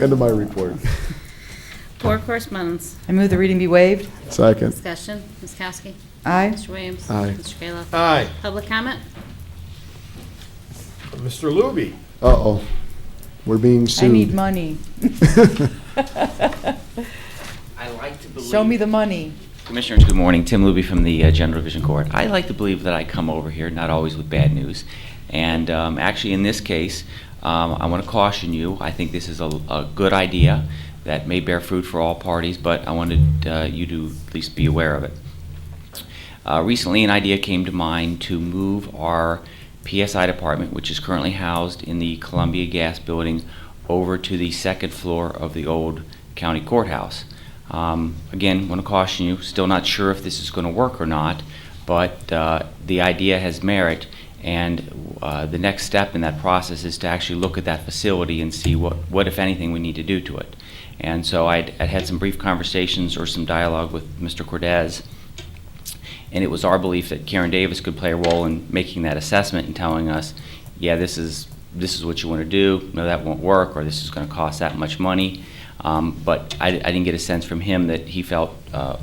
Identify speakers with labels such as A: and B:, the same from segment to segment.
A: End of my report.
B: Board correspondence,
C: I move the reading be waived.
A: Second.
B: discussion, Ms. Kowski.
C: Aye.
B: Mr. Williams.
A: Aye.
B: Mr. Kayla.
D: Aye.
B: Public comment?
D: Mr. Luby.
A: Uh-oh, we're being
C: I need
A: sued.
C: money.
E: I like to believe.
C: Show me the money.
E: Commissioners, good morning. Tim Luby from the uh, General Division Court. I like to believe that I come over here, not always with bad news. And um, actually, in this case, um, I want to caution you. I think this is a, a good idea that may bear fruit for all parties, but I wanted uh, you to at least be aware of it. Uh, recently, an idea came to mind to move our PSI department, which is currently housed in the Columbia Gas Building, over to the second floor of the old county courthouse. Um, again, want to caution you, still not sure if this is going to work or not, but uh, the idea has merit, and uh, the next step in that process is to actually look at that facility and see what, what if anything, we need to do to it. And so I'd, I'd had some brief conversations or some dialogue with Mr. Cordez, and it was our belief that Karen Davis could play a role in making that assessment and telling us, yeah, this is, this is what you want to do, no, that won't work, or this is going to cost that much money. Um, But I, I didn't get a sense from him that he felt uh,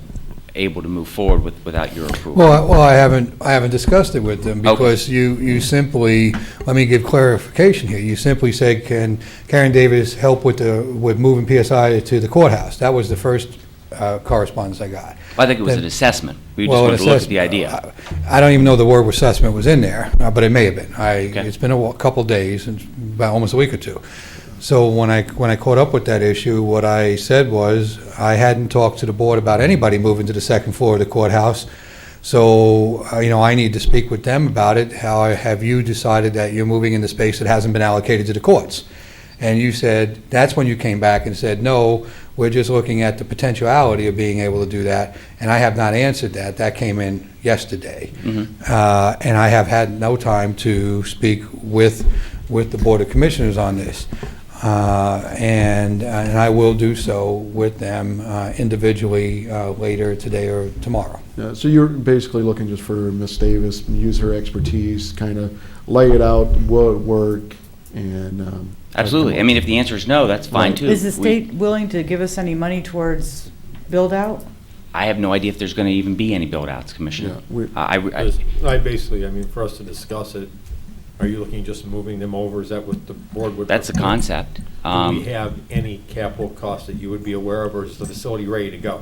E: able to move forward with, without your approval.
F: Well, I- well, I haven't, I haven't discussed it with them
E: Okay.
F: because you, you simply, let me give clarification here. You simply said, can Karen Davis help with the, with moving PSI to the courthouse? That was the first uh, correspondence I got.
E: I think it was an
F: Then-
E: assessment. We just
F: Well,
E: wanted
F: it
E: to look
F: says-
E: at the idea.
F: I don't even know the word assessment was in there, uh, but it may have been. I,
E: Okay.
F: it's been a wa- couple days, and about almost a week or two. So when I, when I caught up with that issue, what I said was, I hadn't talked to the board about anybody moving to the second floor of the courthouse. So, uh, you know, I need to speak with them about it. How have you decided that you're moving into space that hasn't been allocated to the courts? And you said, that's when you came back and said, no, we're just looking at the potentiality of being able to do that. And I have not answered that. That came in yesterday. Uh, And I have had no time to speak with, with the Board of Commissioners on this. Uh, And, and I will do so with them uh, individually uh, later today or tomorrow.
A: Yeah, So you're basically looking just for Miss Davis, use her expertise, kind of lay it out, what would work, and. um,
E: Absolutely. I mean, if the answer is no, that's fine,
A: Right.
E: too.
C: Is the
E: We-
C: state willing to give us any money towards build-out?
E: I have no idea if there's going to even be any build-outs,
A: Yeah,
E: Commissioner.
A: we-
E: I, I-
D: I basically, I mean, for us to discuss it, are you looking just moving them over? Is that what the board would?
E: that's the concept.
D: Do we
E: Um,
D: have any capital costs that you would be aware of, or is the facility ready to go?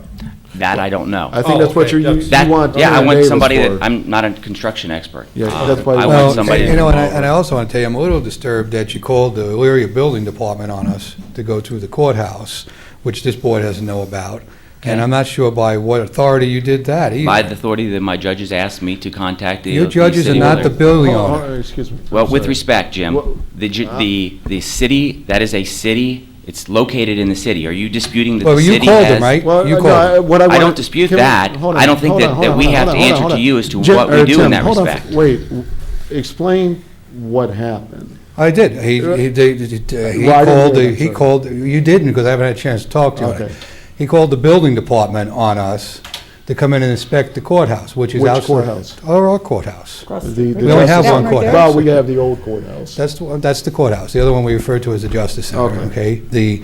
E: That I don't know.
A: I think
F: Oh,
A: that's what
D: okay,
A: you're, you
D: that's-
A: you want.
E: That, yeah, I
A: Karen
E: want
A: Davis
E: somebody that,
A: for.
E: I'm not a construction expert.
A: Yeah,
E: Uh,
A: that's why-
E: I
A: Well,
E: want somebody.
F: You know, and I,
E: to-
F: and I also want to tell you, I'm a little disturbed that you called the Elyria Building Department on us to go to the courthouse, which this board doesn't know about. And
E: Okay.
F: I'm not sure by what authority you did that either.
E: By the authority that my judges asked me to contact the.
F: Your
E: the
F: judges are
E: city
F: not the
E: builder.
F: building
A: Oh,
F: owner.
A: oh, Excuse me.
E: Well,
A: I'm
E: with
A: sorry.
E: respect, Jim,
A: Well,
E: the, ju-
F: uh-huh.
A: uh,
E: the, the city, that is a city, it's located in the city. Are you disputing that
F: Well,
E: the
F: you
E: city has?
F: called them, right?
A: Well,
F: You
A: no,
F: called
A: I-
F: them.
A: what I
E: I
A: wanna-
E: don't dispute
A: can we-
E: that.
A: hold
E: I
A: on,
E: don't think
A: hold
E: that-
A: on,
E: that
A: hold
E: we
A: on,
E: have
A: hold
E: to
A: on,
E: answer
A: hold
E: to
A: on.
E: you as to
A: Jim-
E: what we
A: or
E: do in
A: Tim,
E: that
A: hold on.
E: respect.
A: Wait, w- explain what happened.
F: I did. He, he, they- they- they- he
A: Well, I didn't
F: called,
A: hear
F: the-
A: that,
F: he
A: sir.
F: called, you didn't, because I haven't had a chance to talk to
A: Okay.
F: him. He called the building department on us to come in and inspect the courthouse, which is
A: Which
F: outside.
A: courthouse?
F: Or our courthouse.
A: The- the
F: We only
A: justice-
F: have one
C: That one right there?
A: Well, we have the old courthouse.
F: That's, the one- that's the courthouse. The other one we refer to as the Justice Center,
A: Okay.
F: okay? The,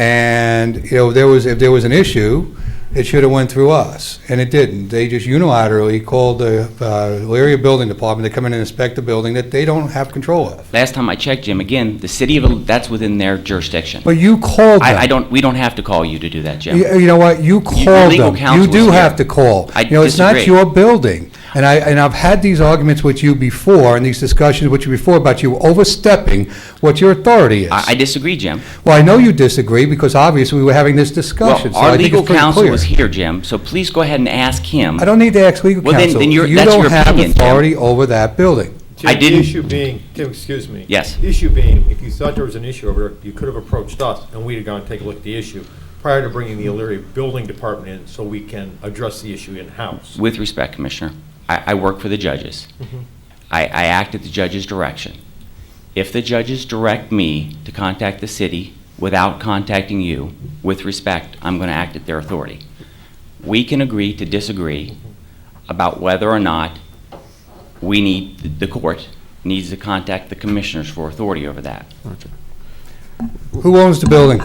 F: and, you know, there was, if there was an issue, it should have went through us, and it didn't. They just unilaterally called the uh, Elyria Building Department to come in and inspect the building that they don't have control of.
E: Last time I checked, Jim, again, the city of, that's within their jurisdiction.
F: But you called them.
E: I, I don't, we don't have to call you to do that, Jim.
F: You you know what, you called
E: legal
F: them. You
E: counsel
F: do
E: is
F: have
E: here.
F: to call.
E: I
F: You know, it's not
E: disagree.
F: your building. And I, and I've had these arguments with you before, and these discussions with you before about you overstepping what your authority is.
E: I I disagree, Jim.
F: Well, I know you disagree, because obviously we were having this discussion,
E: Well,
F: so
E: our
F: I think
E: legal
F: it's pretty
E: counsel was
F: clear.
E: here, Jim, so please go ahead and ask him.
F: I don't need to ask legal
E: Well, then-
F: counsel.
E: then you're- that's your
F: You
E: opinion,
F: don't have
E: Tim.
F: authority over that building.
E: I
D: Tim,
E: didn't-
D: The issue being, Tim, excuse me.
E: Yes.
D: The Issue being, if you thought there was an issue over there, you could have approached us, and we'd have gone and take a look at the issue prior to bringing the Elyria Building Department in, so we can address the issue in-house.
E: With respect, Commissioner, I, I work for the judges. I, I act at the judge's direction. If the judges direct me to contact the city without contacting you, with respect, I'm going to act at their authority. We can agree to disagree about whether or not we need, the court needs to contact the commissioners for authority over that.
F: Who owns the building?